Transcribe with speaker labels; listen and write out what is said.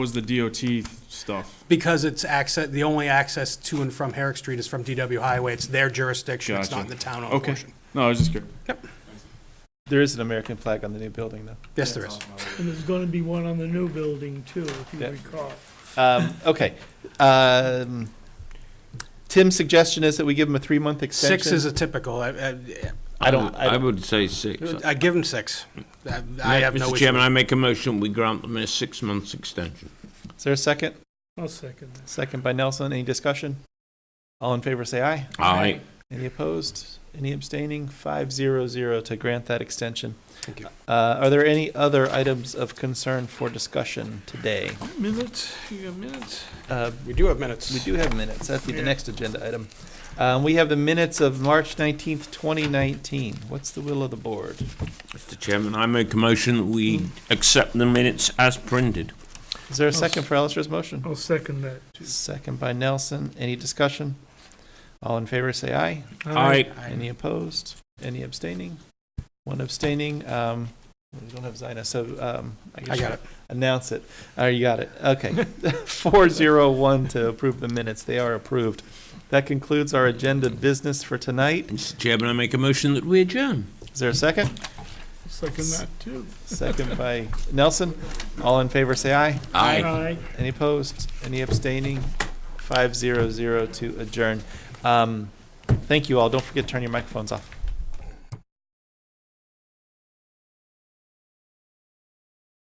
Speaker 1: was the DOT stuff.
Speaker 2: Because it's access, the only access to and from Herrick Street is from DW Highway. It's their jurisdiction. It's not
Speaker 1: Gotcha.
Speaker 2: the town-owned
Speaker 1: Okay.
Speaker 2: portion.
Speaker 1: No, I was just curious.
Speaker 3: There is an American flag on the new building, though.
Speaker 2: Yes, there is.
Speaker 4: And there's gonna be one on the new building too, if you
Speaker 3: Yeah.
Speaker 4: recall.
Speaker 3: Um, okay. Um, Tim's suggestion is that we give him a three-month extension.
Speaker 2: Six is a typical. I, I,
Speaker 3: I don't- I
Speaker 5: Um, I would say six.
Speaker 2: I give them six. I, I have no
Speaker 5: Mr.
Speaker 2: issue.
Speaker 5: Chairman, I make a motion, we grant them a six-month extension.
Speaker 3: Is there a second?
Speaker 4: I'll second that.
Speaker 3: Second by Nelson. Any discussion? All in favor, say aye.
Speaker 5: Aye.
Speaker 3: Any opposed? Any abstaining? Five zero zero to grant that extension.
Speaker 2: Thank you.
Speaker 3: Uh, are there any other items of concern for discussion today?
Speaker 1: Minutes, you got minutes?
Speaker 3: Uh,
Speaker 2: We do have minutes.
Speaker 3: we do have minutes. That'd be the
Speaker 4: Yeah.
Speaker 3: next agenda item. Um, we have the minutes of March nineteenth, twenty nineteen. What's the will of the board?
Speaker 5: Mr. Chairman, I make a motion, that we accept the minutes as printed.
Speaker 3: Is
Speaker 2: Oh,
Speaker 3: there a second for Alistair's motion?
Speaker 4: I'll second that. too.
Speaker 3: Second by Nelson. Any discussion? All in favor, say aye.
Speaker 5: Aye.
Speaker 3: Any opposed? Any abstaining? One abstaining. Um, we don't have Zina, so um, I
Speaker 2: I
Speaker 3: guess
Speaker 2: got
Speaker 3: you
Speaker 2: it.
Speaker 3: announce it. Oh, you got it. Okay. 401 to approve the minutes. They are approved. That concludes our agenda business for tonight.
Speaker 5: Mr. Chairman, I make a motion that we adjourn.
Speaker 3: Is there a second?
Speaker 4: I'll Second that too.
Speaker 3: Second by Nelson. All in favor, say aye.
Speaker 4: Aye.
Speaker 3: Any opposed? Any abstaining? Five zero zero to adjourn. Um, Thank you all. Don't forget to turn your microphones off.